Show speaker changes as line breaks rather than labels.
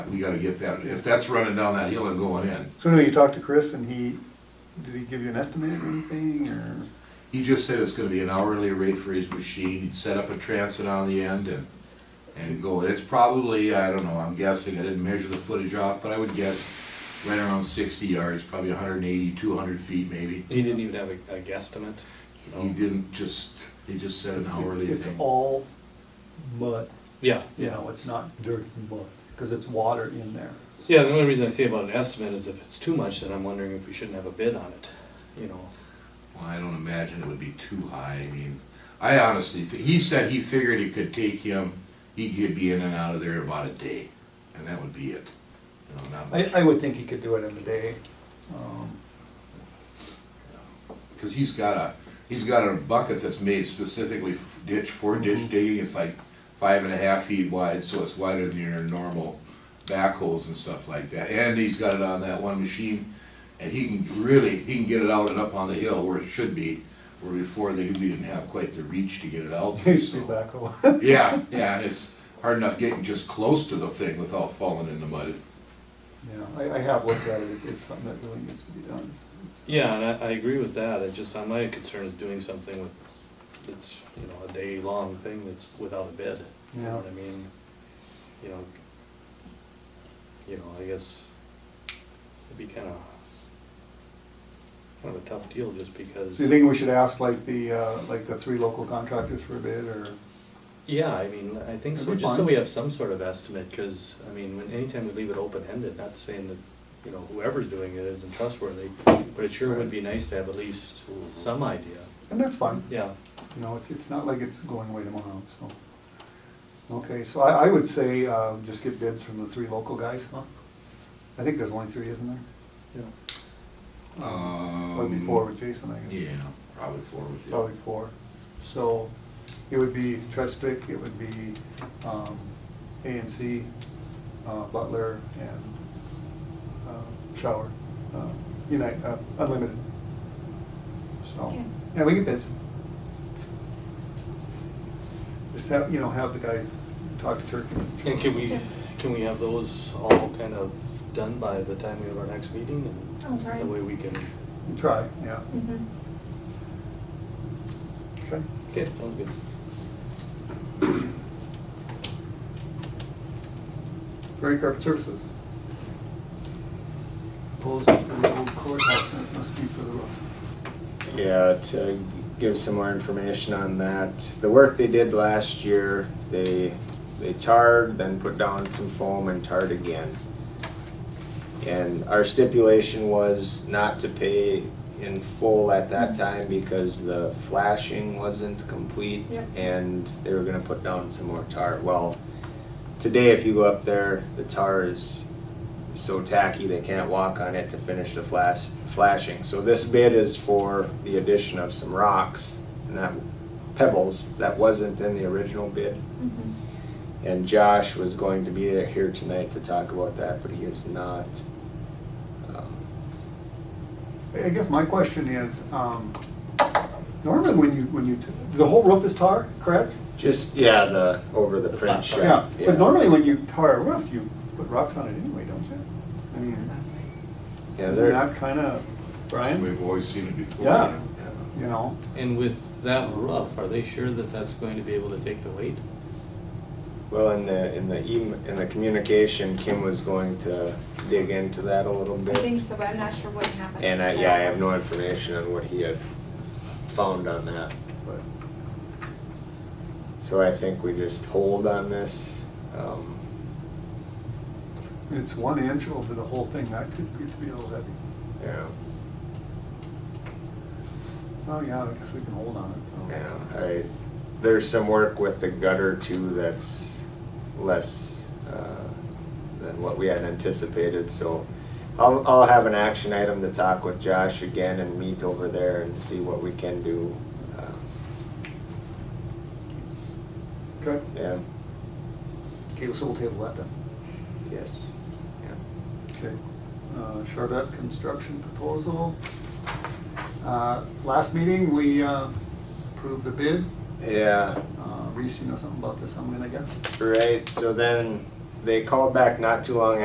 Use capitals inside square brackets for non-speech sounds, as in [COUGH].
We gotta get that, if that's running down that hill and going in,
So anyway, you talked to Chris and he, did he give you an estimate or anything, or?
he just said it's gonna be an hourly rate for his machine, he'd set up a transit on the end and, and go, it's probably, I don't know, I'm guessing, I didn't measure the footage off, but I would guess right around sixty yards, probably 180, 200 feet maybe.
He didn't even have a, a guesstimate.
He didn't just, he just said an
Oh. It's-
hourly
It's it's
thing.
all mud,
Yeah,
you know, it's not dirt and mud, because it's water in there.
yeah, the only reason I say about an estimate is if it's too much, then I'm wondering if we shouldn't have a bid on it, you know.
Well, I don't imagine it would be too high, I mean, I honestly, thi- he said he figured it could take him, he could be in and out of there about a day, and that would be it. You know, not much.
I, I would think he could do it in a day. [LAUGHS] Um,
Cause he's got a, he's got a bucket that's made specifically f- ditch, for ditch
Mm-hmm.
digging, it's like five and a half feet wide, so it's wider than your normal backhoes and stuff like that, and he's got it on that one machine, and he can really, he can get it out and up on the hill where it should be, where before they, we didn't have quite the reach to get it
[LAUGHS]
out.
He
there,
used to
so.
do backhoe.
Yeah, yeah, it's hard enough getting just close to the thing without falling in the mud.
Yeah, I, I have looked at it, it's something that really needs to be done.
Yeah, and I, I agree with that, it's just, uh, my concern is doing something with, that's, you know, a day-long thing that's without a bid. You know
Yeah.
what I mean? You know, you know, I guess it'd be kinda, kind of a tough deal just because.
So you think we should ask like the, uh, like the three local contractors for a bid, or?
Yeah, I mean, I think so,
That'd be
just so
fine.
we have some sort of estimate, because, I mean, when, anytime we leave it open-ended, not saying that, you know, whoever's doing it isn't trustworthy, but it sure would be nice to have at least some idea,
And that's fine.
yeah.
You know, it's, it's not like it's going away tomorrow, so. Okay, so I, I would say, uh, just get bids from the three local guys, huh? I think there's only three, isn't there?
yeah.
Or
Um,
be four with Jason, I guess.
Yeah, probably four with you.
Probably four. So it would be Trespic, it would be, um, A and C, uh, Butler, and, uh, Shower, uh, Unite, uh, Unlimited. So,
Okay.
yeah, we get bids. Just have, you know, have the guy talk to Turkey.
And can we, can we have those all kind of done by the time we have our next meeting? and
I'll try.
That way we can,
And Try, yeah.
Mhm.
Okay.
okay, sounds good.
Prairie Carpet Services. Proposed for the old courthouse, and it must be for the roof.
Yeah, to give some more information on that, the work they did last year, they, they tarred, then put down some foam and tarred again. And our stipulation was not to pay in full at that time because the flashing wasn't complete
Yep.
and they were gonna put down some more tar. Well, today if you go up there, the tar is so tacky they can't walk on it to finish the flash, flashing. So this bid is for the addition of some rocks and that pebbles that wasn't in the original bid.
Mhm.
And Josh was going to be here tonight to talk about that, but he is not. Um,
I- I guess my question is, um, normally when you, when you, t- the whole roof is tar, correct?
Just, yeah, the, over the
The flat
print shop.
But normally when you tar a roof, you put rocks on it anyway, don't you? I mean,
Yeah,
isn't
they're,
that kind of, Brian,
We've always seen it before.
Yeah. you know?
And with that roof, are they sure that that's going to be able to take the weight?
well, in the, in the email, in the communication, Kim was going to dig into that a little
I
bit.
think so, but I'm not sure what happened.
And I, yeah, I have no information on what he had found on that, but. So I think we just hold on this, um,
It's one inch over the whole thing, that could get to be a little heavy.
yeah,
Oh, yeah, I guess we can hold on it.
yeah, I, there's some work with the gutter too that's less, uh, than what we had anticipated, so. I'll, I'll have an action item to talk with Josh again and meet over there and see what we can do, uh,
Okay,
yeah,
okay, so we'll table that then.
yes, yeah.
Okay, uh, Charvette Construction Proposal. Uh, Last meeting, we uh, approved the bid.
Yeah,
Uh, Reese, you know something about this, I'm gonna guess?
Right, so then they called back not too long